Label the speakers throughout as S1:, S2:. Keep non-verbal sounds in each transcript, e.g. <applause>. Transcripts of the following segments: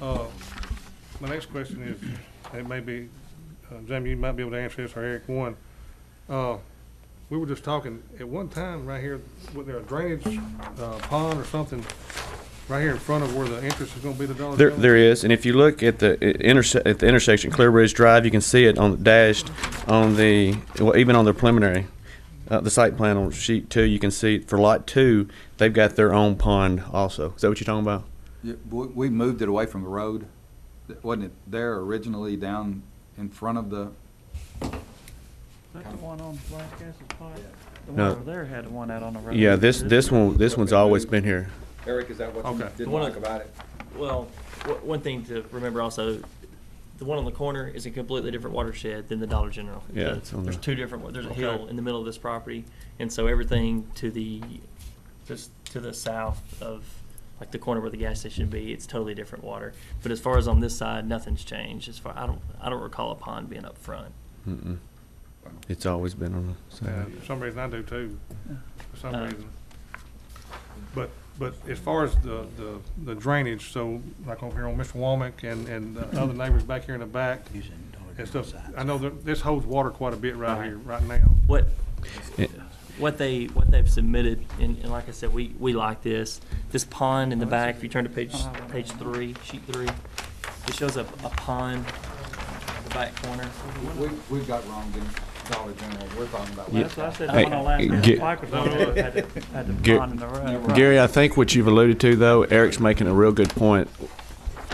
S1: Uh, My next question is, it may be, uh, Jamie, you might be able to answer this, or Eric, one. Uh, We were just talking, at one time, right here, was there a drainage uh, pond or something, right here in front of where the entrance is gonna be to Dollar
S2: There,
S1: General?
S2: there is, and if you look at the i- interse- at the intersection, Clear Ridge Drive, you can see it on the dashed, on the, well, even on the preliminary, uh, the site plan on sheet two, you can see for lot two, they've got their own pond also. Is that what you're talking about?
S3: Yeah, We we moved it away from the road. That- Wasn't it there originally down in front of the,
S4: That the one on Blasquez Pike? The one
S2: No.
S4: over there had the one out on the road.
S2: Yeah, this, this one, this one's always been here.
S5: Eric, is that what
S1: Okay.
S5: you
S1: The
S5: didn't
S6: one
S5: like
S6: of-
S5: about it?
S6: Well, w- one thing to remember also, the one on the corner is a completely different watershed than the Dollar General.
S2: Yeah,
S6: The-
S2: it's on
S6: There's
S2: the-
S6: two different, wa- there's a
S1: Okay.
S6: hill in the middle of this property, and so everything to the, just to the south of, like the corner where the gas station would be, it's totally different water. But as far as on this side, nothing's changed, as far, I don't, I don't recall a pond being up front.
S2: Mm-mm. It's always been on the
S1: Yeah,
S2: side.
S1: uh, For some reason, I do too, for some
S6: Uh,
S1: reason. But, but as far as the, the- the drainage, so like over here on Mr. Womack and, and the <clears throat> other neighbors back here in the back and stuff, I know that this holds water quite a bit right
S6: Right.
S1: here, right now.
S6: What,
S2: Yeah.
S6: what they, what they've submitted, and, and like I said, we, we like this. This pond in the back, if you turn to page, page three, sheet three, it shows a, a pond in the back corner.
S3: we, we got wrong in Dollar General. We're talking about.
S2: Yeah.
S4: That's what I said, the
S2: Hey,
S4: one on Blasquez
S2: get-
S4: Pike was the one
S2: <laughs>
S4: that had the, had the
S2: Get-
S4: pond in the road.
S2: Gary, I think what you've alluded to, though, Eric's making a real good point.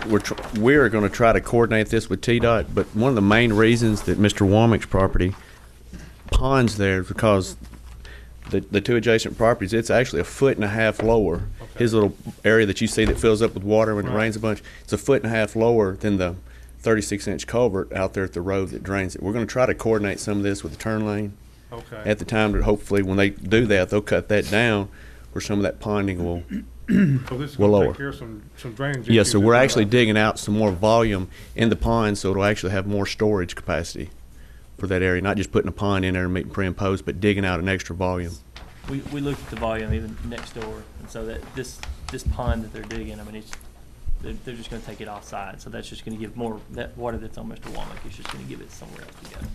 S2: We're, tr- we're going to try to coordinate this with TDOT, but one of the main reasons that Mr. Womack's property ponds there is because the, the two adjacent properties, it's actually a foot and a half lower. His little area that you see that fills up with water when it
S1: Right.
S2: rains a bunch, it's a foot and a half lower than the 36 inch culvert out there at the road that drains it. We're going to try to coordinate some of this with the turn lane
S1: Okay,
S2: at the time that hopefully when they do that, they'll cut that down where some of that ponding will.
S1: so this is
S2: we'll
S1: gonna
S2: lower.
S1: take care of some, some drainage.
S2: Yeah,
S1: issues
S2: so
S1: that
S2: we're
S1: we
S2: actually
S1: have.
S2: digging out some more volume in the pond, so it'll actually have more storage capacity for that area, not just putting a pond in there and meeting pre and post, but digging out an extra volume.
S6: We, we looked at the volume even next door, and so that, this, this pond that they're digging, I mean, it's, they're, they're just gonna take it offside, so that's just gonna give more, that water that's on Mr. Womack is just gonna give it somewhere else to go.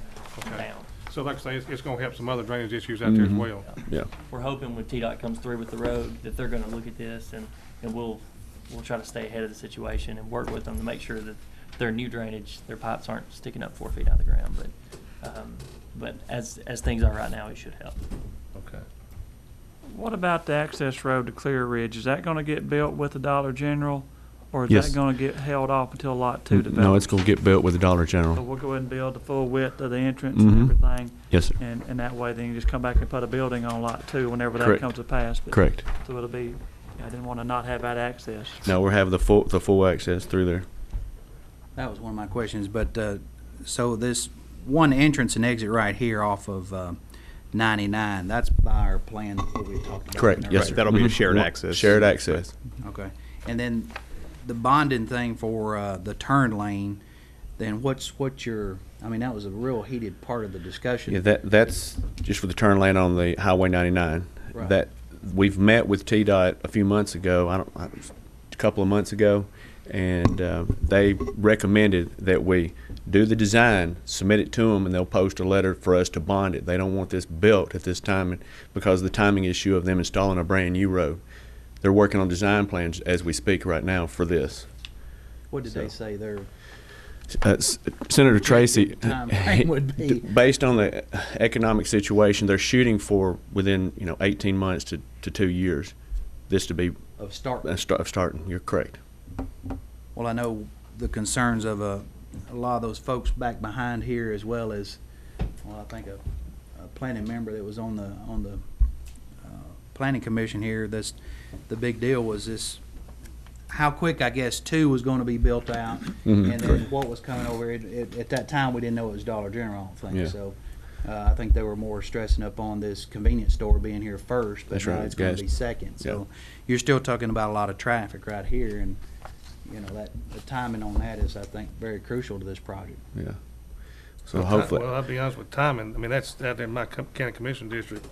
S1: Okay.
S6: Down.
S1: So like I say, it's, it's gonna help some other drainage issues out there as
S2: Mhm.
S1: well.
S2: Yeah.
S6: We're hoping when TDOT comes through with the road, that they're gonna look at this, and, and we'll, we'll try to stay ahead of the situation and work with them to make sure that their new drainage, their pipes aren't sticking up four feet out of the ground, but, um, but as, as things are right now, it should help.
S1: Okay.
S4: What about the access road to Clear Ridge? Is that gonna get built with the Dollar General? Or is
S2: Yes. Mm,
S4: that gonna get held off until lot two develops?
S2: Mm-hmm. No, it's gonna get built with the Dollar
S4: So
S2: General.
S4: we'll go ahead and build the full width of the entrance and
S2: Mhm.
S4: everything,
S2: Yes, sir.
S4: and, and that way then you just come back and put a building on lot two whenever that
S2: Correct.
S4: comes to pass. but-
S2: Correct.
S4: So it'll be, I didn't wanna not have that access.
S2: No, we're having the full, the full access through there.
S7: That was one of my questions, but, uh, so this one entrance and exit right here off of uh, 99, that's by our plan that we talked about.
S2: Correct,
S7: in
S2: yes,
S7: there.
S2: sir.
S8: that'll be a
S2: Mhm.
S8: shared access.
S2: Shared access.
S7: Okay. And then the bonding thing for uh, the turn lane, then what's, what's your, I mean, that was a real heated part of the discussion.
S2: Yeah, that, that's just for the turn lane on the Highway 99.
S7: Right.
S2: That, we've met with TDOT a few months ago, I don't, I- a couple of months ago, and uh, they recommended that we do the design, submit it to them, and they'll post a letter for us to bond it. They don't want this built at this time and- because of the timing issue of them installing a brand-new road. They're working on design plans as we speak right now for this.
S7: What did they say there?
S2: Uh, S- Senator Tracy,
S7: timeframe would be.
S2: based on the economic situation, they're shooting for within, you know, 18 months to, to two years, this to be
S7: Of start?
S2: uh, sta- starting. You're correct.
S7: Well, I know the concerns of uh, a lot of those folks back behind here, as well as, well, I think a, a planning member that was on the, on the uh, planning commission here, that's, the big deal was this, how quick, I guess, two was gonna be built out,
S2: Mm-hmm.
S7: and then what was coming over. It- it- At that time, we didn't know it was Dollar General, I
S2: Yeah.
S7: think, so. uh, I think they were more stressing up on this convenience store being here first, but
S2: That's
S7: now
S2: right,
S7: it's gonna
S2: gas-
S7: be second. So you're still talking about a lot of traffic right here, and you know, that, the timing on that is, I think, very crucial to this project.
S2: Yeah. So
S1: Ti-
S2: hopefully,
S1: Well, I'll be honest with timing, I mean, that's out there in my co- county commission district.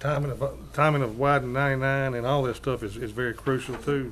S1: Timing of, timing of widening ninety-nine and all this stuff is, is very crucial too.